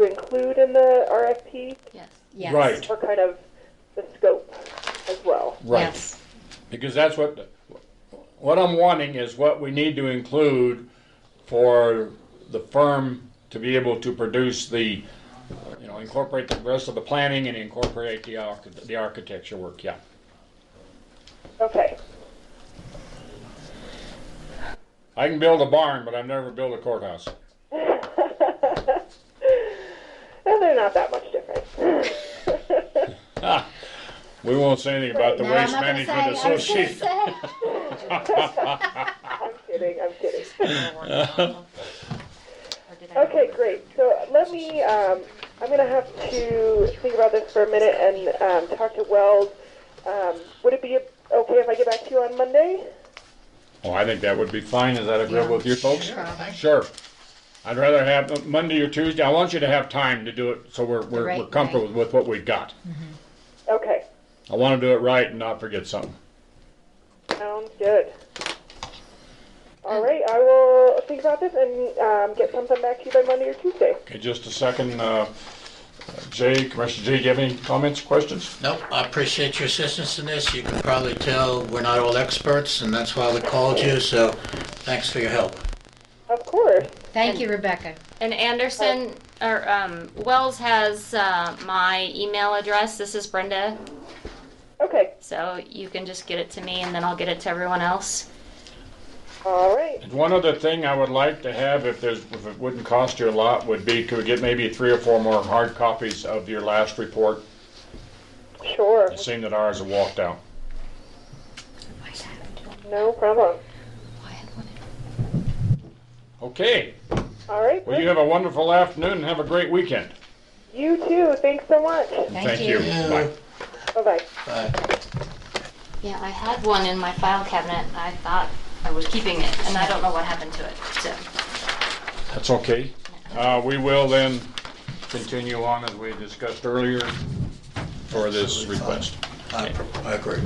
include in the RFP Yes. Yes. Right. or kind of the scope as well? Right, Yes. because that's what, what I'm wanting is what we need to include for the firm to be able to produce the, you know, incorporate the rest of the planning and incorporate the arch, the architecture work, yeah. Okay. I can build a barn, but I've never built a courthouse. Well, they're not that much different. Ah, We won't say anything about the No, I'm Waste not gonna say. Management I was gonna Association. say. I'm kidding. I'm kidding. Okay, Okay, great. So let me, um, I'm gonna have to think about this for a minute and, um, talk to Wells. Um, would it be okay if I get back to you on Monday? Oh, I think that would be fine. Is that agreeable with you folks? Sure. Sure. I'd rather have Monday or Tuesday. I want you to have time to do it so we're, we're, Right, we're comfortable with what we've got. Okay, I want to do it right and not forget something. sounds good. All right, I will think about this and, um, get something back to you by Monday or Tuesday. Okay, just a second. Uh, Jay, Commissioner Jay, do you have any comments, questions? Nope, I appreciate your assistance in this. You can probably tell we're not all experts, and that's why we called you, so thanks for your help. Of course. Thank you, Rebecca. And Anderson, or, um, Wells has, uh, my email address. This is Brenda. Okay, So you can just get it to me and then I'll get it to everyone else. all right. And One other thing I would like to have, if there's, if it wouldn't cost you a lot, would be could we get maybe three or four more hard copies of your last report? Sure, It seemed that ours have walked out. no problem. Okay, All right, well, you great. have a wonderful afternoon and have a great weekend. You too. Thanks so much. Thank you. you. Bye. Bye-bye. Bye. Yeah, I had one in my file cabinet. I thought I was keeping it and I don't know what happened to it, so. That's okay. Uh, We will then continue on as we discussed earlier for this request. I I agree.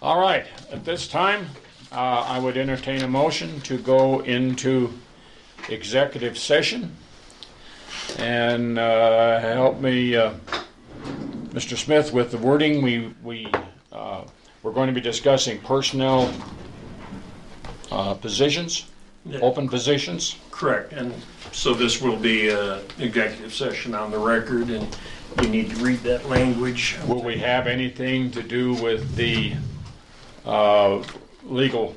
All right, at this time, uh, I would entertain a motion to go into executive session. And uh, help me, uh, Mr. Smith, with the wording, we, we, uh, we're going to be discussing personnel uh, positions, open positions. Correct, and so this will be an executive session on the record, and you need to read that language. Will we have anything to do with the uh, legal,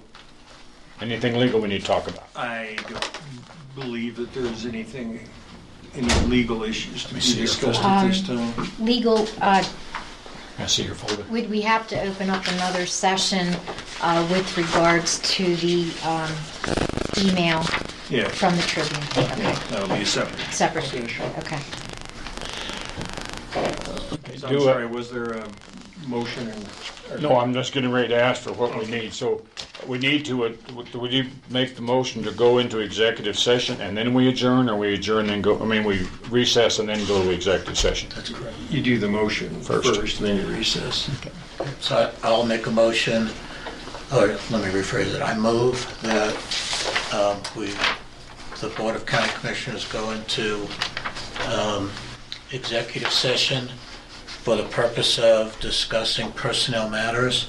anything legal we need to talk about? I don't believe that there's anything, any legal issues to be see your discussed at this Um, time. Legal, uh, I see your folder. would we have to open up another session, uh, with regards to the, um, email Yeah, from the Tribune? Okay, that'll be a separate Separate. session. okay. Do So I'm it. sorry, was there a motion? and- No, I'm just getting ready to ask for what we need, so we need to, uh, would you make the motion to go into executive session and then we adjourn, or we adjourn and go, I mean, we recess and then go to executive session? You do the motion First. first, then you recess. So I- I'll make a motion, or let me rephrase it. I move that um, we, the Board of County Commissioners go into um, executive session for the purpose of discussing personnel matters.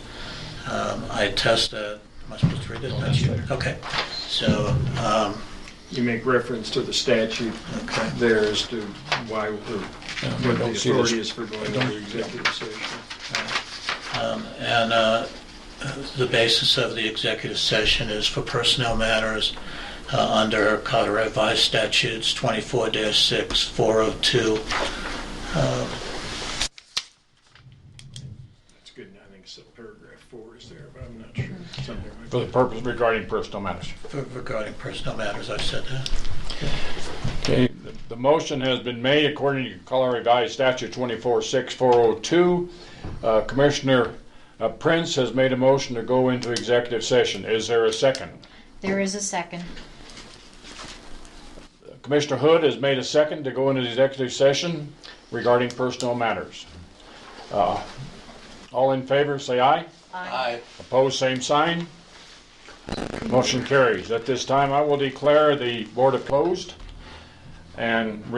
Um, I attest that, am I supposed to read it? That's you. Okay, so, um, You make reference to the statute okay. there as to why, we're- what the Um, don't see this. authority is for going into executive session. And uh, the basis of the executive session is for personnel matters uh, under Colorado Revised Statutes 24-6, 402. It's good, I think so, paragraph four is there, but I'm not sure. Something like For the purpose regarding personal matters. For- Regarding personnel matters, I said that. Okay, the- the motion has been made according to Colorado Revised Statute 246402. Uh, Commissioner uh, Prince has made a motion to go into executive session. Is there a second? There is a second. Commissioner Hood has made a second to go into the executive session regarding personnel matters. Uh, All in favor, say aye. Aye. Opposed, same sign. Motion carries. At this time, I will declare the board of closed and